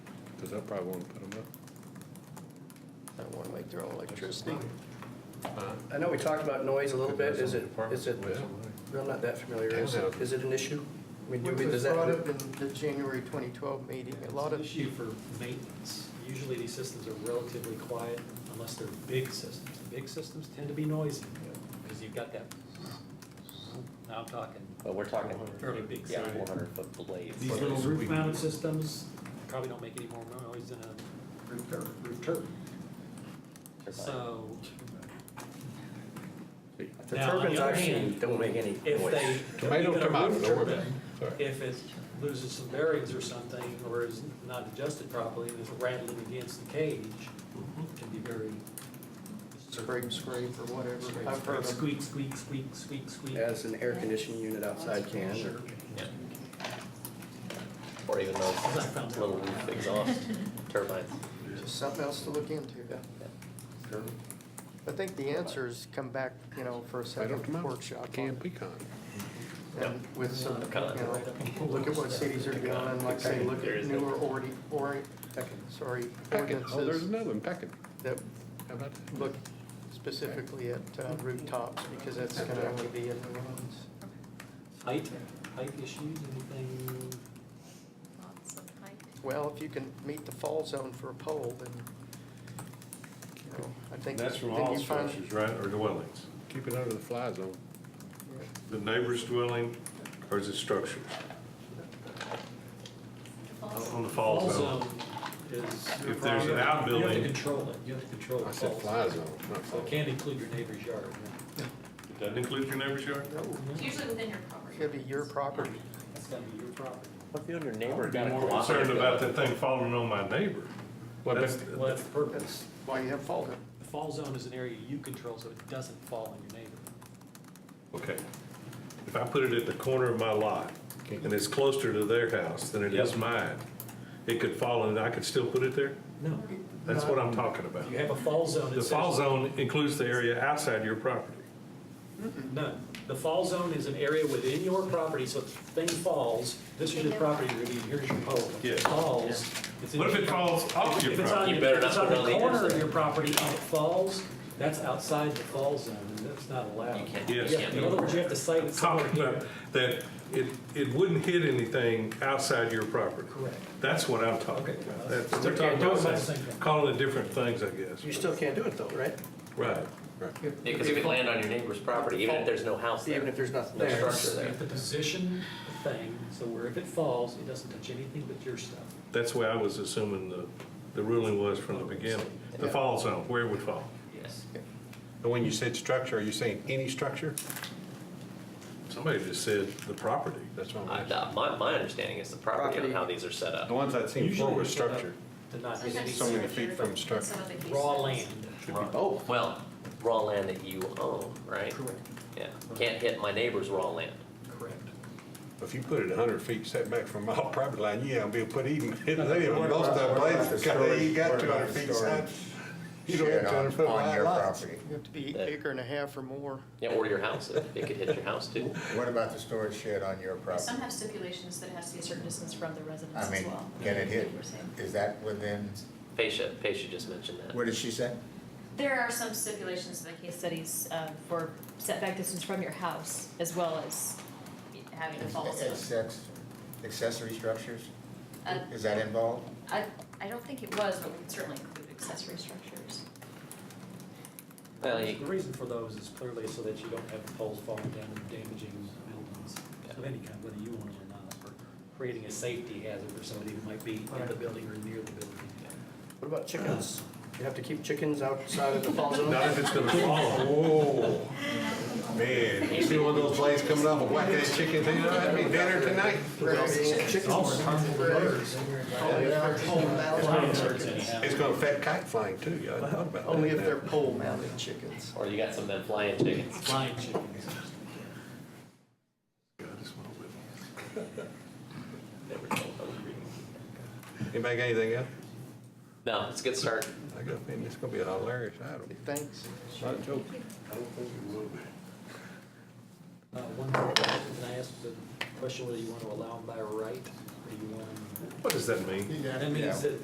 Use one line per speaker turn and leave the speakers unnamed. because I probably won't put them
I don't want to make their own electricity.
up. Huh?
I know we talked about noise a little bit, is it, is it,
Department.
I'm not that familiar, is it, is it an issue? I mean, do
Which
we, does
was brought
that,
up in the January 2012 meeting, a lot
It's an
of,
issue for maintenance. Usually these systems are relatively quiet unless they're big systems. The big systems tend to be noisy because you've got that, now I'm talking
But we're talking,
fairly big
yeah,
size.
four hundred foot blades.
These little roof mounted systems probably don't make any more noise than a roof tur- roof turbine. So
the
Now, on the
turbines
other
I've seen
hand,
don't make any
if
noise.
they.
Tomato,
even a
tomato,
roof
no way.
turbine,
Sorry.
If it loses some bearings or something, or is not adjusted properly, and is rattling against the cage, it can be very.
scrape, scrape, or whatever. I've heard of
Squeak, squeak, squeak, squeak, squeak.
As an air conditioning unit outside can, or-
Yeah.
Or even those little roof exhaust turbines.
just something else to look into. I think the answer is come back, you know, for a
Tomato,
second
tomato,
workshop.
pecan, pecan.
on- And with some, you
Pecan.
know, look at what cities are doing, and like say, look at newer ordi, ori, sorry,
Pecking, oh, there's
ordinances
another one, pecking.
that
How about that?
look specifically at uh, rooftops, because that's gonna have to be in the ones.
Height, height issues, anything?
Lots of height.
Well, if you can meet the fall zone for a pole, then, you know, I think.
That's from
then
all
you find-
structures, right, or dwellings?
Keep it under the fly zone.
The neighbor's dwelling, or is it structures? On the fall zone?
Also, is.
If there's an
You have to
outbuilding,
control it, you have to control the
I said
falls.
fly zone, not
So
fall.
it can't include your neighbor's yard. right?
it doesn't include your neighbor's yard?
It's usually within your property.
It'd be your property.
That's gotta be your property.
What if you and your neighbor
Be
got a
more
cooperative?
concerned about
going?
that thing falling on my neighbor.
Well,
That's-
but-
Well, that's the purpose.
That's why you have fall zone.
The fall zone is an area you control, so it doesn't fall on your neighbor.
Okay. If I put it at the corner of my lot, and it's closer to their house than it is
Yep.
mine, it could fall and I could still put it there?
No.
That's what I'm talking about.
You have a fall zone. it
The fall
says-
zone includes the area outside your property.
No, the fall zone is an area within your property, so if thing falls, this is your property, you're gonna be, here's your pole. If it
Yeah.
Falls. it's in
What if
your
it
property.
falls off your
If it's on,
property?
You
if
better
it's
not
on
put it on
the
the
corner of
interstate.
your property and it falls, that's outside the fall zone, and that's not allowed.
You can't,
Yes.
you
Yeah,
can't
in
do
other
it.
words, you have to cite it somewhere
Talking
here.
about that it, it wouldn't hit anything outside your property.
Correct.
That's what I'm talking
Okay.
about. That's-
Okay,
We're talking
don't
about
say
that.
something.
calling it different things, I guess.
You still can't do it though, right?
Right.
Yeah, cause if you land on your neighbor's property, even if there's no house
Even
there,
if there's nothing
no
there.
structure
You
there.
have to position the thing, so where if it falls, it doesn't touch anything but your stuff.
That's where I was assuming the, the ruling was from the beginning. The fall zone, where it would fall.
Yes.
And when you said structure, are you saying any structure?
Somebody just said the property.
That's what I'm
I,
asking.
uh, my, my understanding is the property on
Property.
how these are set
The
up.
ones I've seen before
Usually
were
it's set up
structure.
To not hit
Sometimes
so many
any
feet
structure,
from
but
structure.
some of the
raw
cases-
land.
both.
Well, raw land that you own, right?
Correct,
Yeah, can't hit my neighbor's raw land.
correct.
If you put it hundred feet setback from my property line, you ain't gonna be put even, they didn't want most of the blades, because you got two hundred feet side. You don't have two hundred foot
on
wide
your
lots.
property.
You have to be acre and a half or more.
Yeah, or your house, it it could hit your house too.
What about the storage shed on your property?
Some have stipulations that it has to be a certain distance from the residence
I
as
mean,
well.
can it hit,
Like you were saying.
is that within,
Paisha, Paisha just mentioned that.
what did she say?
There are some stipulations in the case studies um, for setback distance from your house as well as having a fall zone.
Accex- Accessory structures,
Uh,
is that involved?
I, I don't think it was, but we could certainly include accessory structures.
Well,
The
you-
reason for those is clearly so that you don't have poles falling down and damaging buildings of any kind, whether you own them or not, or creating a safety hazard for somebody who might be in the building or near the building.
What about chickens? You have to keep chickens outside of the fall zone?
Not if it's gonna fall.
Whoa, Oh, man, you see one of those blades coming off a whack ass chicken, you know, that'd be dinner tonight.
All are harmful to birds. Oh,
Only
Lions birds anyhow.
It's gonna affect kite flying too, y'all thought about that.
if they're pole mounted chickens.
or you got some of them flying chickens.
Flying chickens.
Never told hungry.
Anybody got anything else?
No, it's a good start.
I got a feeling it's gonna be a hilarious item.
Thanks.
Not a joke.
Uh, One more, question. can I ask the question whether you want to allow them by right, or you want them?
What does that mean?
That means that